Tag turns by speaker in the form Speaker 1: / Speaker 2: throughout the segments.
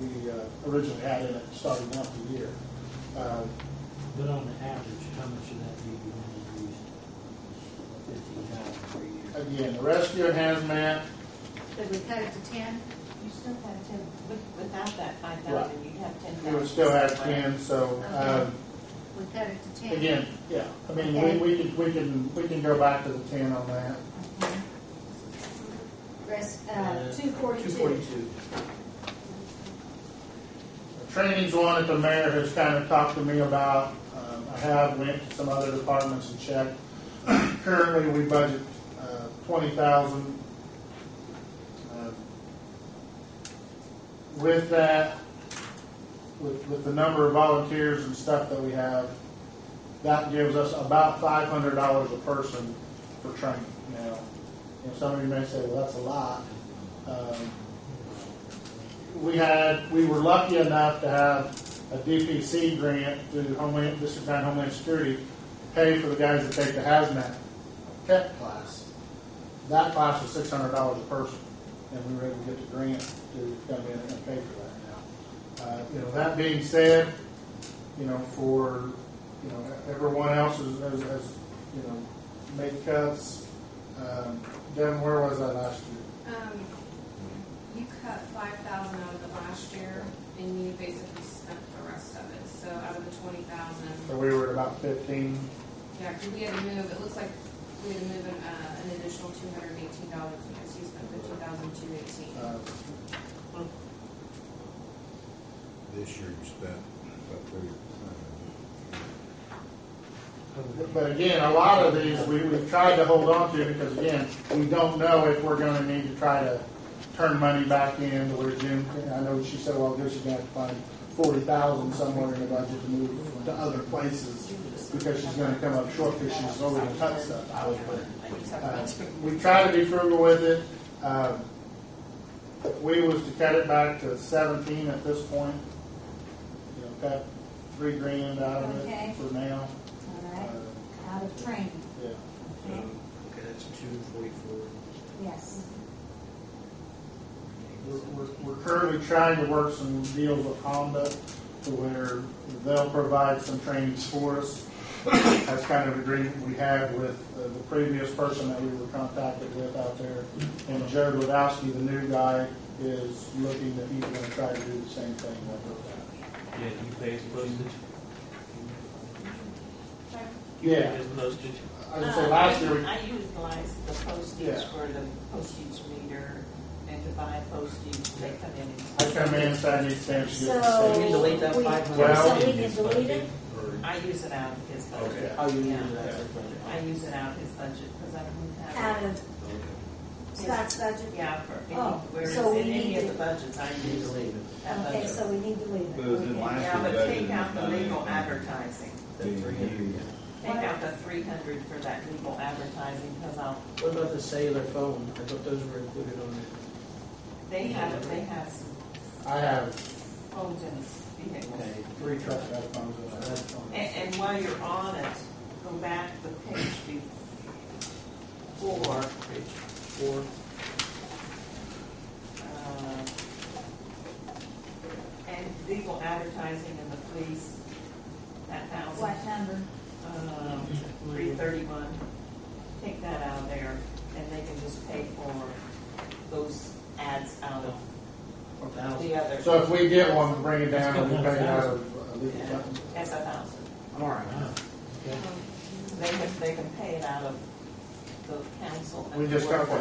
Speaker 1: uh, originally had in it starting out the year. Uh,
Speaker 2: But on the average, how much of that do you want to use? Fifteen thousand per year.
Speaker 1: Again, the rescue and hazmat,
Speaker 3: Could we cut it to ten?
Speaker 4: You still have ten, with- without that five
Speaker 1: Right.
Speaker 4: thousand, you'd have ten
Speaker 1: we
Speaker 4: thousand.
Speaker 1: would still have ten, so, um,
Speaker 3: We cut it to ten?
Speaker 1: again, yeah. I mean, we,
Speaker 3: Okay.
Speaker 1: we can, we can, we can go back to the ten on that.
Speaker 3: Mhm. Res, uh,
Speaker 2: Uh,
Speaker 3: two
Speaker 1: Two
Speaker 3: forty-two.
Speaker 1: forty-two. Training's one that the mayor has kind of talked to me about. Um, I have went to some other departments and checked. Currently, we budget uh, twenty thousand. Um, With that, with, with the number of volunteers and stuff that we have, that gives us about five hundred dollars a person for training now. And some of you may say, well, that's a lot. Um, we had, we were lucky enough to have a DPC grant through Homeland, District Nine Homeland Security, pay for the guys that take the hazmat tech class. That class was six hundred dollars a person, and we were able to get the grant to come in and pay for that now. Uh, you know, that being said, you know, for, you know, everyone else is, has, has, you know, made cuts. Um, Devin, where was I last year?
Speaker 5: Um, you cut five thousand out of the last year, and you basically spent the rest of it, so out of the twenty thousand.
Speaker 1: So we were at about fifteen.
Speaker 5: Yeah, 'cause we had to move, it looks like we had to move an, uh, an additional two hundred and eighteen dollars, because you spent fifteen thousand two eighteen.
Speaker 1: Uh,
Speaker 6: This year you spent about thirty uh, percent.
Speaker 1: But again, a lot of these, we, we've tried to hold on to because again, we don't know if we're gonna need to try to turn money back in to where Jim, I know she said, well, there's gonna have to find forty thousand somewhere in the budget to move to other places because she's gonna come up short because she's already cut stuff. I would put Uh, We try to be frugal with it. Um, If we was to cut it back to seventeen at this point, you know, cut three grand out of
Speaker 3: Okay.
Speaker 1: it for now.
Speaker 3: All
Speaker 1: Uh,
Speaker 3: right, out of training,
Speaker 1: Yeah.
Speaker 2: So, okay, that's two forty-four.
Speaker 3: yes.
Speaker 1: We're, we're, we're currently trying to work some deals with Honda to where they'll provide some trainings for us. That's kind of agreement we had with uh, the previous person that we were contacted with out there. And Jared Wadowski, the new guy, is looking that he's gonna try to do the same thing like that.
Speaker 7: Yeah, you pay his postage?
Speaker 1: Yeah,
Speaker 7: His postage?
Speaker 1: I would say last year, we-
Speaker 4: Uh, I utilized the postage
Speaker 1: Yeah.
Speaker 4: for the postage meter and to buy postage, they come in and.
Speaker 1: I come in and say I need stamps. she gets the
Speaker 3: So- You
Speaker 1: stamps.
Speaker 3: can delete that
Speaker 1: Well-
Speaker 3: So we can delete it?
Speaker 4: I use it out of his budget.
Speaker 1: Okay.
Speaker 2: Oh, you
Speaker 4: Yeah.
Speaker 2: knew that's a budget.
Speaker 4: I use it out of his budget, because I don't have.
Speaker 3: Out of Scott's budget?
Speaker 4: Yeah, for
Speaker 3: Oh,
Speaker 4: any,
Speaker 3: so
Speaker 4: whereas
Speaker 3: we
Speaker 4: in any
Speaker 3: need
Speaker 4: of
Speaker 3: to-
Speaker 4: the budgets, I
Speaker 2: You
Speaker 4: use
Speaker 2: believe
Speaker 4: that budget.
Speaker 3: Okay, so we need to leave
Speaker 6: But it was
Speaker 3: it.
Speaker 6: in
Speaker 3: Okay.
Speaker 6: line.
Speaker 4: Yeah, but take out the
Speaker 6: Last year,
Speaker 4: legal
Speaker 6: that
Speaker 4: advertising.
Speaker 6: Being used.
Speaker 4: Take out the three hundred for that legal advertising, because I'll,
Speaker 2: What about the cellular phone? I thought those were included on
Speaker 4: they have, they have some
Speaker 1: I have
Speaker 4: phones in his vehicles.
Speaker 2: Okay.
Speaker 1: three trucks that have phones in it.
Speaker 4: And, and while you're on it, go back the page before,
Speaker 2: page four.
Speaker 4: uh, and legal advertising in the police, that thousand,
Speaker 3: What number?
Speaker 4: um, three thirty-one. Take that out of there, and they can just pay for those ads out of the other.
Speaker 1: So if we get one, bring it down and we pay it out of uh, legal
Speaker 4: Yeah,
Speaker 1: funds.
Speaker 4: That's a thousand.
Speaker 2: All right. Okay.
Speaker 5: Um,
Speaker 4: They can, they can pay it out of the council. and
Speaker 1: We just
Speaker 4: the
Speaker 1: got
Speaker 4: work.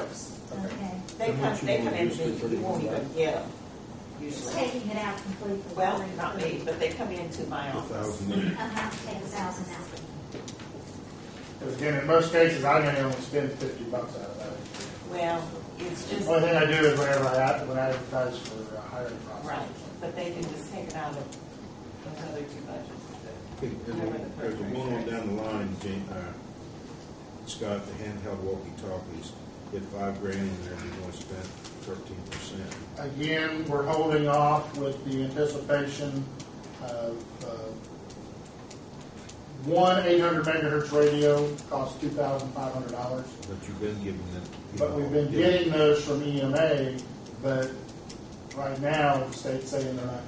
Speaker 1: one. Okay.
Speaker 3: Okay.
Speaker 4: They
Speaker 6: How
Speaker 4: come,
Speaker 6: much you
Speaker 4: they
Speaker 6: want
Speaker 4: come in,
Speaker 6: to use for
Speaker 4: and you won't
Speaker 6: the-
Speaker 4: even get them,
Speaker 3: Just
Speaker 4: usually.
Speaker 3: taking it out completely.
Speaker 4: Well, not me, but they come into my
Speaker 6: A
Speaker 4: office.
Speaker 6: thousand.
Speaker 3: Uh-huh, take a thousand out.
Speaker 1: Because again, in most cases, I may only spend fifty bucks out of that.
Speaker 4: Well, it's just,
Speaker 1: Only thing I do is whenever I, ad- when I advertise for a hiring process.
Speaker 4: right, but they can just take it out of those other two budgets.
Speaker 6: There's a- there's a one on down the line, Jane, uh, Scott, the handheld walkie-talkies, hit five grand in there, and you only spent thirteen percent.
Speaker 1: Again, we're holding off with the anticipation of, uh, one eight hundred megahertz radio costs two thousand five hundred dollars.
Speaker 6: But you've been giving them.
Speaker 1: But we've been
Speaker 6: Yeah.
Speaker 1: E getting those from EMA, but right now, the state's saying they're not